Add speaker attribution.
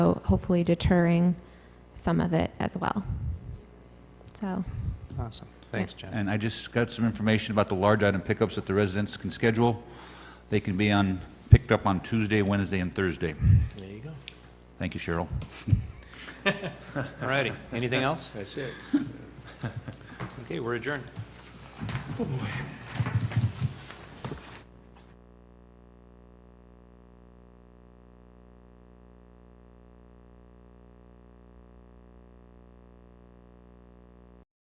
Speaker 1: so hopefully deterring some of it as well. So,
Speaker 2: Awesome. Thanks, Jen.
Speaker 3: And I just got some information about the large item pickups that the residents can schedule. They can be on, picked up on Tuesday, Wednesday, and Thursday.
Speaker 2: There you go.
Speaker 3: Thank you, Cheryl.
Speaker 2: All righty. Anything else? That's it. Okay, we're adjourned.